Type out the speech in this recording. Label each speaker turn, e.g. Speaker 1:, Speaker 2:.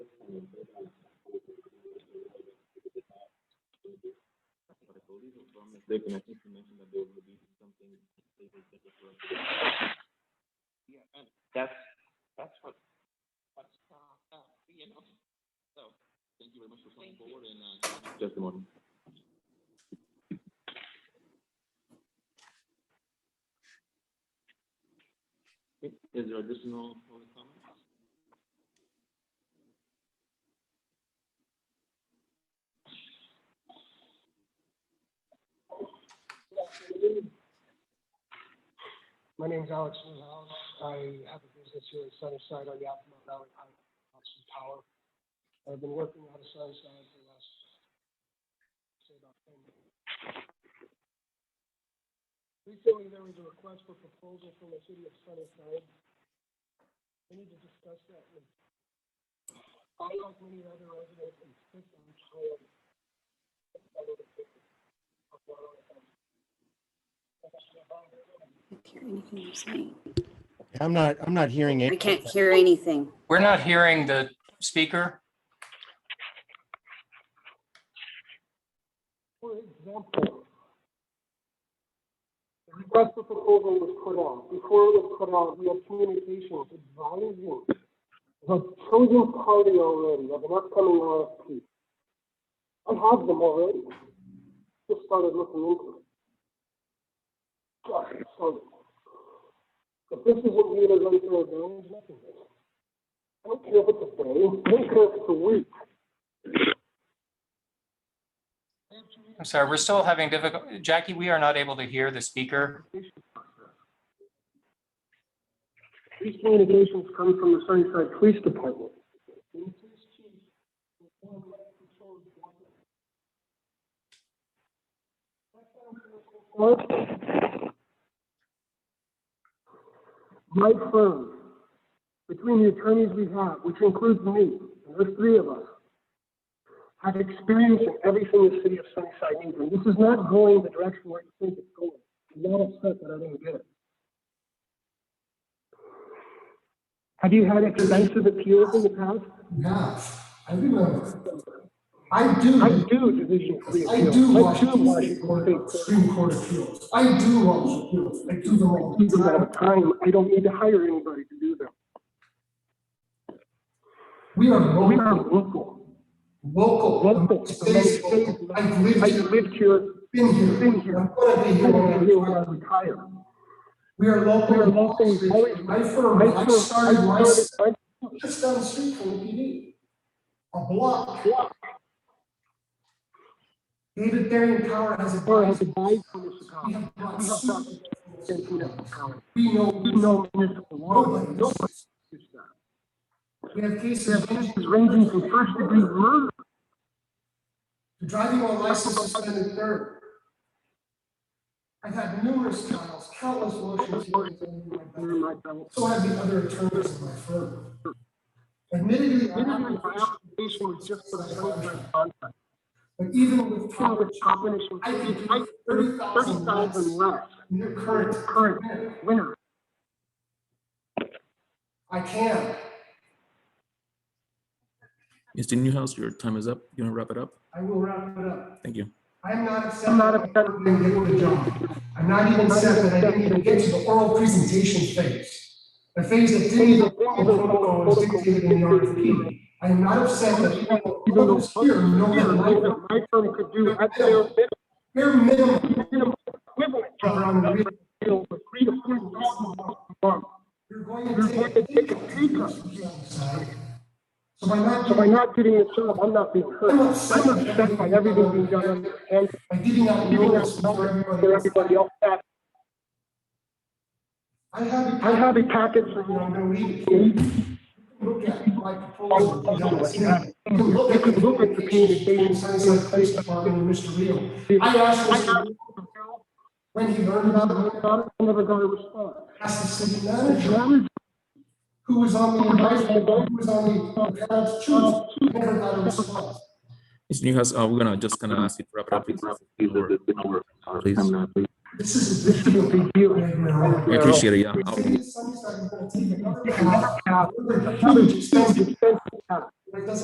Speaker 1: mistaken, I think you mentioned that there would be something.
Speaker 2: Yeah, and that's, that's what, what's, uh, uh, you know, so. Thank you very much for coming forward and, uh.
Speaker 1: Testimony. Okay, Is there additional public comment?
Speaker 3: My name is Alex Newhouse. I have a business here in Sunnyside on Yakima Valley High Hudson Power. I've been working out of Sunnyside for the last, say about ten years. Recently, there was a request for proposal from the city of Sunnyside. I need to discuss that with, I like many other residents in Clifton County. I live in Clifton, Colorado. I got my-
Speaker 4: can't hear anything you're saying.
Speaker 5: I'm not, I'm not hearing
Speaker 4: I
Speaker 5: it.
Speaker 4: can't hear anything.
Speaker 6: We're not hearing the speaker.
Speaker 3: For example, the request for proposal was put out. Before it was put out, we had communications advising the chosen party already of an upcoming RFP. I have them already. Just started looking into it. Just started. If this isn't viewed as unfair advantage, nothing is. I don't care if it's a day, I don't care if it's a week.
Speaker 6: I'm sorry, we're still having difficulty. Jackie, we are not able to hear the speaker.
Speaker 3: These communications come from the Sunnyside Police Department. My firm, between the attorneys we have, which includes me, and there's three of us, have experience in everything the city of Sunnyside needs, and this is not going the direction where you think it's going. I'm not upset that I didn't get it. Have you had extensive appeals in the past?
Speaker 7: Yeah, I remember. I do,
Speaker 3: I do Division Three
Speaker 7: I do
Speaker 3: appeals. I
Speaker 7: watch
Speaker 3: do
Speaker 7: the
Speaker 3: watch
Speaker 7: Supreme
Speaker 3: it.
Speaker 7: Court, Supreme Court appeals. I do watch appeals. I do them all
Speaker 3: Use
Speaker 7: the
Speaker 3: them all the
Speaker 7: time.
Speaker 3: time. I don't need to hire anybody to do them.
Speaker 7: We are
Speaker 3: We are
Speaker 7: local,
Speaker 3: local.
Speaker 7: local.
Speaker 3: Local.
Speaker 7: Stays local. I've lived
Speaker 3: I've
Speaker 7: here,
Speaker 3: lived here,
Speaker 7: been here.
Speaker 3: been here.
Speaker 7: I'm gonna be
Speaker 3: I'm
Speaker 7: here
Speaker 3: gonna
Speaker 7: when
Speaker 3: be
Speaker 7: I
Speaker 3: here when I
Speaker 7: retire.
Speaker 3: retire.
Speaker 7: We are local.
Speaker 3: We are local. We've always-
Speaker 7: My
Speaker 3: I
Speaker 7: firm, I
Speaker 3: started,
Speaker 7: started
Speaker 3: I
Speaker 7: my,
Speaker 3: started,
Speaker 7: just down the street from the PD. A block. David Darian Power has a.
Speaker 3: I has advised for this
Speaker 7: We
Speaker 3: economy.
Speaker 7: have brought
Speaker 3: We have not
Speaker 7: suit.
Speaker 3: been through that economy.
Speaker 7: We know.
Speaker 3: We know municipal law.
Speaker 7: Nobody.
Speaker 3: Nobody does that.
Speaker 7: We have
Speaker 3: We
Speaker 7: cases
Speaker 3: have cases ranging from first degree murder
Speaker 7: driving on license suspended third. I've had numerous trials, countless motions. hearings under my
Speaker 3: under
Speaker 7: belt.
Speaker 3: my belt.
Speaker 7: So have the other attorneys in my firm. Admittedly,
Speaker 3: My
Speaker 7: I'm not-
Speaker 3: application was just for the first time contract.
Speaker 7: but even with
Speaker 3: Even
Speaker 7: proper
Speaker 3: with compensation,
Speaker 7: I could
Speaker 3: I
Speaker 7: do
Speaker 3: thirty
Speaker 7: $30,000
Speaker 3: thousand less,
Speaker 7: your current,
Speaker 3: current winner.
Speaker 7: I can,
Speaker 8: Mr. Newhouse, your time is up. You want to wrap it up?
Speaker 7: I will wrap it up.
Speaker 8: Thank you.
Speaker 7: I'm not upset.
Speaker 3: I'm not
Speaker 7: that I
Speaker 3: upset.
Speaker 7: didn't get the job. I'm not even upset that I didn't even get to the oral presentation phase. The phase that didn't even follow the protocol was dictated in the RFP. I am not upset that
Speaker 3: Even
Speaker 7: people,
Speaker 3: though
Speaker 7: others here know their life,
Speaker 3: my firm could do at their
Speaker 7: bare minimum,
Speaker 3: minimum equivalent of around the region, three to four thousand dollars a month.
Speaker 7: you're going
Speaker 3: You're
Speaker 7: to
Speaker 3: going
Speaker 7: take.
Speaker 3: to take a pay cut.
Speaker 7: So by not,
Speaker 3: So by not getting the job, I'm not being hurt. I'm upset by everything being done on their end,
Speaker 7: by giving out
Speaker 3: giving
Speaker 7: notice
Speaker 3: us
Speaker 7: for
Speaker 3: numbers
Speaker 7: everybody
Speaker 3: for
Speaker 7: else,
Speaker 3: everybody else.
Speaker 7: I have,
Speaker 3: I
Speaker 7: I
Speaker 3: have a package for
Speaker 7: I'm
Speaker 3: you.
Speaker 7: going to read it. Look at my proposal. You know, it's not- You can look at the communication, signs like police department, and Mr. Rio. I asked
Speaker 3: I have-
Speaker 7: Mr. Rio when he learned about it,
Speaker 3: I never got a response.
Speaker 7: asked the city
Speaker 3: As
Speaker 7: manager,
Speaker 3: long as
Speaker 7: who was on the advisory board, who was on the parents' choose, never got a response.
Speaker 8: Mr. Newhouse, uh, we're gonna just gonna ask you to wrap it up. please. Please.
Speaker 7: This is a big deal.
Speaker 3: Big deal.
Speaker 7: right now.
Speaker 8: I appreciate it. Yeah.
Speaker 7: The
Speaker 8: I'll-
Speaker 7: city of Sunnyside is going to take another
Speaker 3: you
Speaker 7: path,
Speaker 3: have
Speaker 7: another
Speaker 3: another
Speaker 7: huge expense
Speaker 3: expensive tax,
Speaker 7: that doesn't